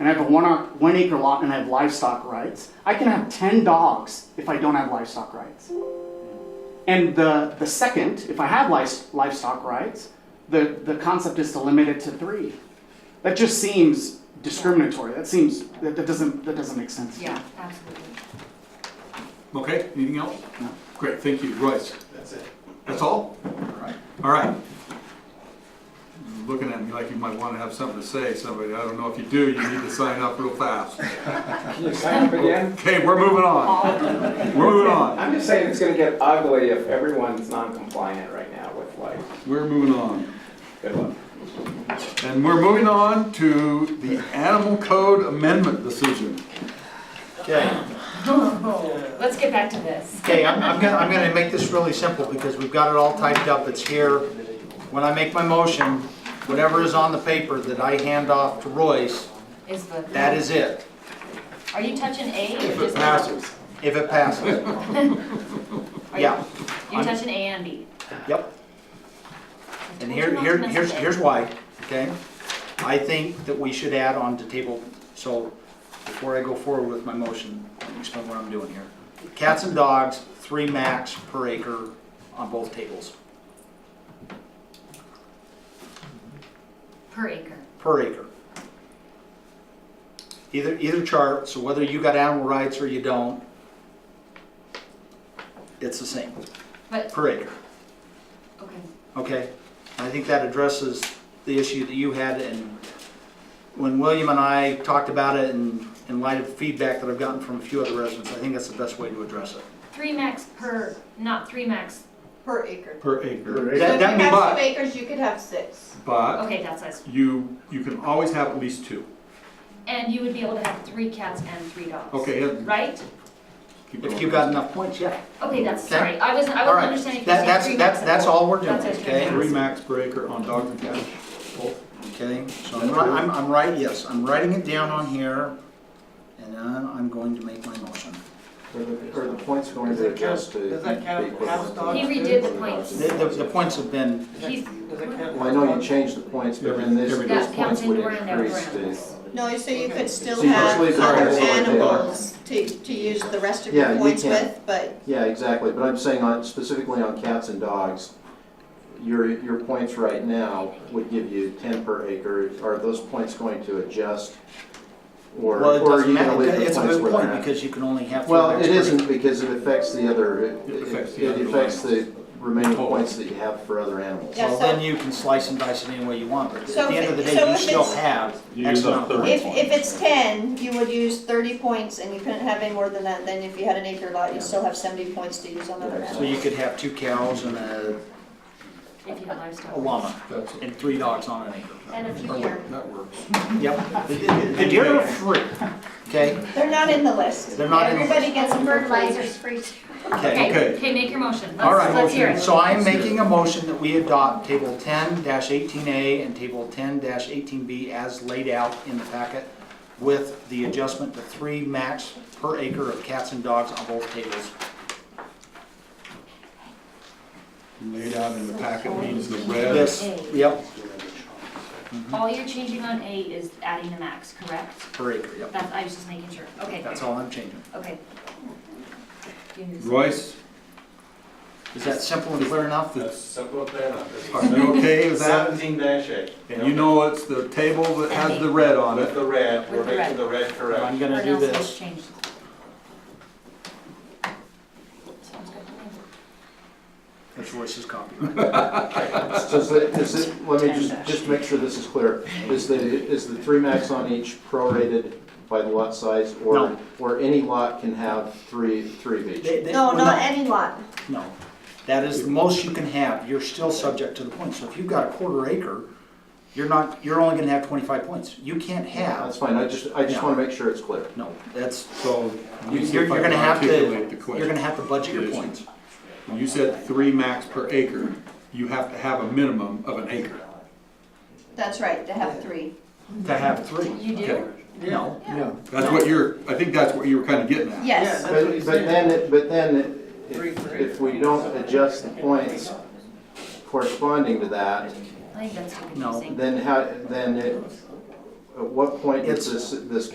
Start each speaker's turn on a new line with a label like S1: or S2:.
S1: and I have a one, ac- one acre lot and I have livestock rights, I can have 10 dogs if I don't have livestock rights. And the, the second, if I have lice- livestock rights, the, the concept is to limit it to three. That just seems discriminatory. That seems, that, that doesn't, that doesn't make sense. to me.
S2: Yeah, absolutely.
S3: Okay, anything else?
S1: No.
S3: Great, thank you, Royce.
S4: That's it.
S3: That's all?
S4: All right.
S3: All right. Looking at me like you might want to have something to say, somebody, I don't know if you do, you need to sign up real fast.
S5: Can you sign up again?
S3: Okay, we're moving on, we're moving on,
S5: I'm just saying it's gonna get ugly if everyone's non-compliant right now with like,
S3: we're moving on.
S5: good luck.
S3: And we're moving on to the Animal Code Amendment decision.
S4: Okay,
S2: Let's get back to this.
S4: okay, I'm, I'm gonna, I'm gonna make this really simple because we've got it all typed up, it's here. When I make my motion, whatever is on the paper that I hand off to Royce,
S2: Is the.
S4: that is it,
S2: Are you touching A or
S4: if it
S2: just?
S4: passes, if it passes,
S2: Are you-
S4: yeah,
S2: You're touching A and B.
S4: yep. And
S2: Told
S4: here,
S2: you not
S4: here,
S2: to mess
S4: here's,
S2: with
S4: here's
S2: it.
S4: why, okay? I think that we should add on to table, so before I go forward with my motion, I'll explain what I'm doing here. Cats and dogs, three max per acre on both tables,
S2: Per acre.
S4: per acre. Either, either chart, so whether you got animal rights or you don't, it's the same,
S2: But,
S4: per acre.
S2: okay,
S4: Okay, I think that addresses the issue that you had, and when William and I talked about it, and in light of feedback that I've gotten from a few other residents, I think that's the best way to address it.
S2: three max per, not three max,
S6: Per acre.
S3: Per acre.
S4: That- that
S6: If you
S4: means-
S6: have
S3: but-
S6: two acres, you could have six.
S3: But
S2: okay, that's us.
S3: you, you can always have at least two.
S2: And you would be able to have three cats and three dogs.
S3: Okay, yeah,
S2: Right?
S3: keep going.
S4: If you've got enough points, yeah.
S2: Okay, that's,
S4: Okay.
S2: sorry, I wasn't, I
S4: All
S2: wasn't
S4: right.
S2: understanding if you
S4: That-
S2: were saying
S4: that's-
S2: three
S4: that's-
S2: max.
S4: that's all we're doing,
S2: That's
S4: okay?
S3: Three max per acre on dogs and Oh, cats. Both.
S4: Okay, so I'm, ri- I'm, I'm right, yes, I'm writing it down on here, and then I'm going to make my motion.
S7: Are the, are the points going to adjust to?
S8: Does that count-
S7: be equivalent
S8: house
S7: to-
S8: dogs
S2: He redid the points.
S4: The, the, the points have been,
S2: He's,
S7: Well, I know you changed the points, but then this,
S3: Every-
S7: those
S2: that counts
S7: points would
S2: indoor and outdoor
S7: increase the.
S2: animals.
S6: No, so you could still
S7: So you
S6: have
S7: actually
S6: other
S7: could have-
S6: animals to, to use the rest of
S7: Yeah,
S6: your
S7: you
S6: points
S7: can.
S6: with, but
S7: Yeah, exactly, but I'm saying on, specifically on cats and dogs, your, your points right now would give you ten per acre. Are those points going to adjust? Or,
S4: well, it
S7: or are
S4: doesn't
S7: you gonna
S4: matter,
S7: leave the
S4: it's a
S7: points
S4: moot
S7: where
S4: point,
S7: they're at?
S4: because you can only have. three
S7: Well,
S4: max
S7: it
S4: per acre.
S7: isn't, because it affects the other, it-
S3: It affects
S7: it
S3: the
S7: it
S3: other
S7: affects
S3: animals.
S7: the remaining
S3: Totally.
S7: points that you have for other animals.
S6: Yeah,
S4: Well,
S6: so-
S4: then you can slice and dice it any way you want, but at
S6: So
S4: the end
S6: if
S4: of the
S6: it-
S4: day,
S6: so
S4: you
S6: if
S4: still
S6: it's-
S4: have
S9: You
S4: X
S9: use up
S4: amount of
S9: thirty
S4: points.
S6: if, if it's ten, you would use thirty points and you couldn't have any more than that, then if you had an acre lot, you still have seventy points to use on other
S4: So
S6: animals.
S4: you could have two cows and a
S2: if you have livestock.
S4: a llama
S3: That's,
S4: and three dogs on an acre.
S6: And a few
S3: that
S6: deer.
S3: works, that works.
S4: Yep. The- the- The deer are free, okay?
S6: They're not in the list.
S4: They're not in the
S6: Everybody gets them for free.
S2: free.
S4: Okay.
S2: Okay,
S3: Okay.
S2: okay, make your motion.
S4: All
S2: Let's,
S4: right.
S2: let's hear it.
S4: So I am making a motion that we adopt table ten eighteen A and table ten eighteen B as laid out in the packet with the adjustment to three max per acre of cats and dogs on both tables.
S3: Laid out in the packet means the red.
S4: Yes, yep,
S2: All you're changing on A is adding the max, correct?
S4: per acre, yep.
S2: That's, I was just making sure. Okay,
S4: That's all I'm changing.
S2: okay. You can just-
S3: Royce,
S4: Is that simple and clear enough?
S8: Simple plan up.
S3: are you okay with that?
S8: Seventeen dash eight.
S3: And you know it's the table that has the red on
S8: With
S3: it.
S8: the red, we're
S2: With the
S8: making
S2: red.
S8: the red correct.
S4: I'm gonna
S2: Or
S4: do
S2: else it's
S4: this.
S2: changed. Sounds good to me.
S4: That's Royce's copyright.
S7: Does it, is it, let me just, just make sure this is clear. Is the, is the three max on each prorated by the lot size?
S4: No.
S7: Or, or any lot can have three, three of each?
S4: They- they-
S6: No,
S4: we're
S6: not any lot.
S4: No, that is the most you can have, you're still subject to the points, so if you've got a quarter acre, you're not, you're only gonna have twenty-five points, you can't
S7: That's
S4: have,
S7: fine, I just, I just want to make sure it's clear.
S4: no, that's,
S3: So
S4: you're,
S3: you see if
S4: you're
S3: I
S4: gonna
S3: can
S4: have to,
S3: articulate the
S4: you're
S3: question.
S4: gonna have to budget your
S3: Yes.
S4: points.
S3: When You said three max per acre. You have to have a minimum of an acre.
S6: That's right, to have three.
S4: To have three.
S2: You
S3: Okay.
S2: do?
S4: No,
S3: That's what you're, I think that's what you were kind of getting at.
S6: Yes.
S8: That's what
S7: But,
S8: he's
S7: but
S8: saying.
S7: then, it- but then,
S8: Three,
S7: if,
S8: three.
S7: if we don't adjust the points corresponding to that,
S2: I think that's too
S4: No.
S2: confusing.
S7: then how, then it, at what point does
S4: It's-
S7: this, this